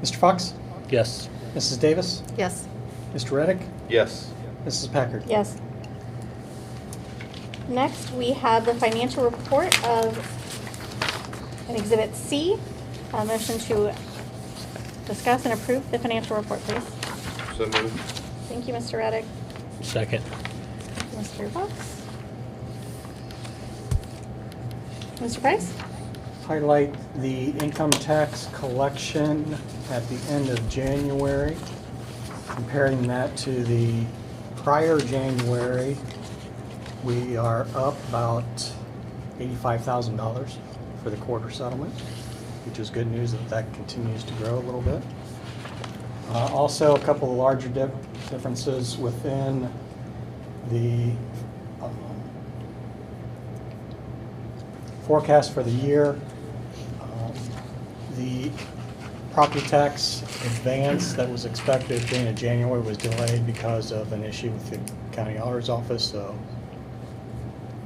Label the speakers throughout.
Speaker 1: Mr. Fox?
Speaker 2: Yes.
Speaker 1: Mrs. Davis?
Speaker 3: Yes.
Speaker 1: Mr. Reddick?
Speaker 4: Yes.
Speaker 1: Mrs. Packard?
Speaker 3: Yes. Next, we have the financial report of an Exhibit C. A motion to discuss and approve the financial report, please.
Speaker 4: So moved.
Speaker 3: Thank you, Mr. Reddick.
Speaker 2: Second.
Speaker 3: Mr. Fox? Mr. Price?
Speaker 1: Highlight the income tax collection at the end of January, comparing that to the prior January. We are up about $85,000 for the quarter settlement, which is good news that that continues to grow a little bit. Uh, Also, a couple of larger dif- differences within the um, forecast for the year. Um, The property tax advance that was expected at the end of January was delayed because of an issue with the county auditor's office, so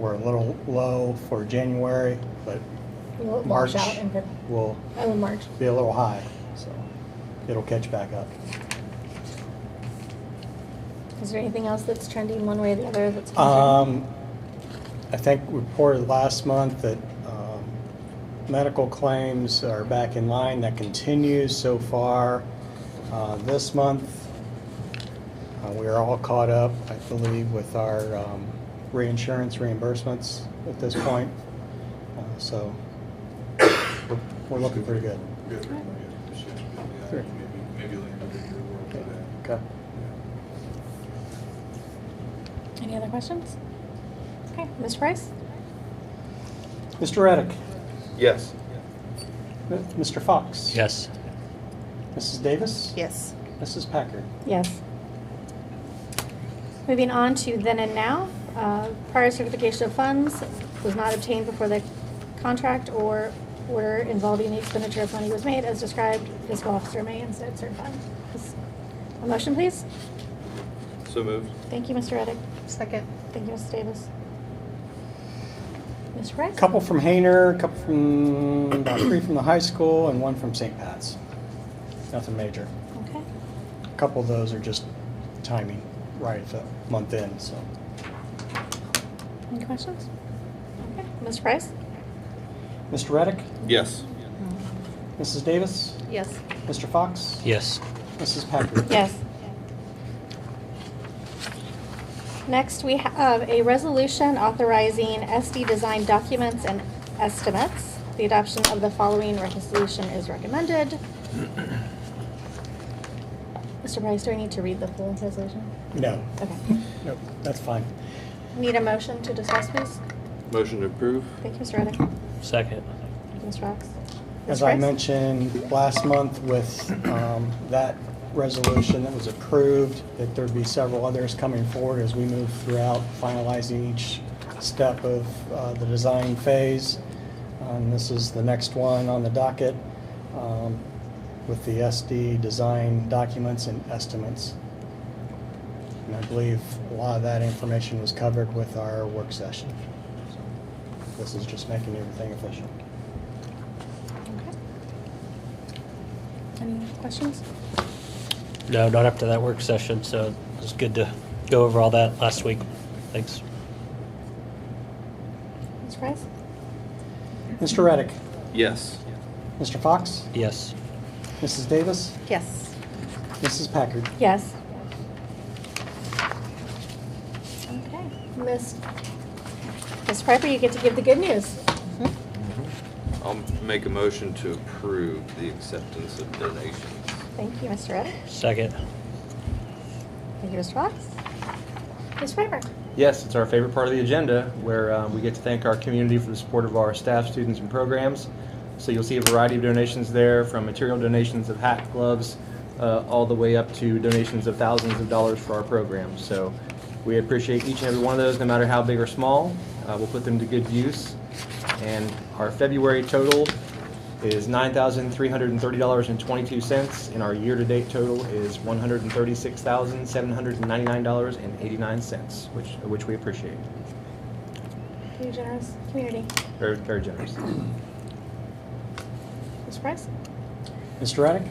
Speaker 1: we're a little low for January, but
Speaker 5: Will it
Speaker 1: March
Speaker 5: wash out in Feb-
Speaker 1: will
Speaker 5: Oh, in March.
Speaker 1: be a little high, so it'll catch back up.
Speaker 5: Is there anything else that's trending one way or the other that's concerning?
Speaker 1: Um, I think we reported last month that um, medical claims are back in line. That continues so far uh, this month. Uh, We are all caught up, I believe, with our um, reinsurance reimbursements at this point. Uh, So we're- we're looking pretty good.
Speaker 6: Good. Yeah.
Speaker 1: Sure.
Speaker 6: Maybe, maybe later in the year we'll do that.
Speaker 1: Okay.
Speaker 6: Yeah.
Speaker 5: Any other questions?
Speaker 3: Okay, Mr. Price?
Speaker 1: Mr. Reddick,
Speaker 4: Yes.
Speaker 1: Mr. Fox.
Speaker 2: Yes.
Speaker 1: Mrs. Davis.
Speaker 3: Yes.
Speaker 1: Mrs. Packard.
Speaker 3: Yes. Moving on to then and now, uh, prior certification of funds was not obtained before the contract or order involving the expenditure of money was made as described. Fiscal officer may instead certify. A motion, please?
Speaker 4: So moved.
Speaker 3: Thank you, Mr. Reddick.
Speaker 5: Second.
Speaker 3: Thank you, Ms. Davis. Mr. Price?
Speaker 1: Couple from Hayner, couple from, about three from the high school, and one from St. Pat's. Nothing major.
Speaker 3: Okay.
Speaker 1: A Couple of those are just timing, right at the month end, so.
Speaker 3: Any questions? Okay. Mr. Price?
Speaker 1: Mr. Reddick,
Speaker 4: Yes.
Speaker 1: Mrs. Davis,
Speaker 3: Yes.
Speaker 1: Mr. Fox.
Speaker 2: Yes.
Speaker 1: Mrs. Packard.
Speaker 3: Yes. Next, we have a resolution authorizing SD design documents and estimates. The adoption of the following resolution is recommended. Mr. Price, do I need to read the full resolution?
Speaker 1: No,
Speaker 3: Okay.
Speaker 1: no, that's fine.
Speaker 3: Need a motion to discuss, please?
Speaker 4: Motion to approve?
Speaker 3: Thank you, Mr. Reddick. Thank
Speaker 2: Second.
Speaker 3: you, Ms. Fox.
Speaker 1: As
Speaker 3: Mr.
Speaker 1: I
Speaker 3: Price?
Speaker 1: mentioned last month with um, that resolution that was approved, that there'd be several others coming forward as we move throughout finalizing each step of uh, the design phase. And this is the next one on the docket um, with the SD design documents and estimates. And I believe a lot of that information was covered with our work session. So This is just making everything official.
Speaker 3: Okay. Any questions?
Speaker 2: No, not after that work session, so it's good to go over all that last week. Thanks.
Speaker 3: Ms. Price?
Speaker 1: Mr. Reddick.
Speaker 4: Yes.
Speaker 1: Mr. Fox,
Speaker 2: Yes.
Speaker 1: Mrs. Davis,
Speaker 3: Yes.
Speaker 1: Mrs. Packard.
Speaker 3: Yes. Okay, Miss, Miss Piper, you get to give the good news.
Speaker 4: I'll make a motion to approve the acceptance of donations.
Speaker 3: Thank you, Mr. Reddick.
Speaker 2: Second.
Speaker 3: Thank you, Mr. Fox. Ms. Piper?
Speaker 7: Yes, it's our favorite part of the agenda, where uh, we get to thank our community for the support of our staff, students, and programs. So you'll see a variety of donations there, from material donations of hat, gloves, uh, all the way up to donations of thousands of dollars for our program. So we appreciate each and every one of those, no matter how big or small. Uh, We'll put them to good use. And our February total is $9,330.22, and our year-to-date total is $136,799.89, which, which we appreciate.
Speaker 3: You generous community.
Speaker 7: Very, very generous.
Speaker 3: Ms. Price?
Speaker 1: Mr. Reddick,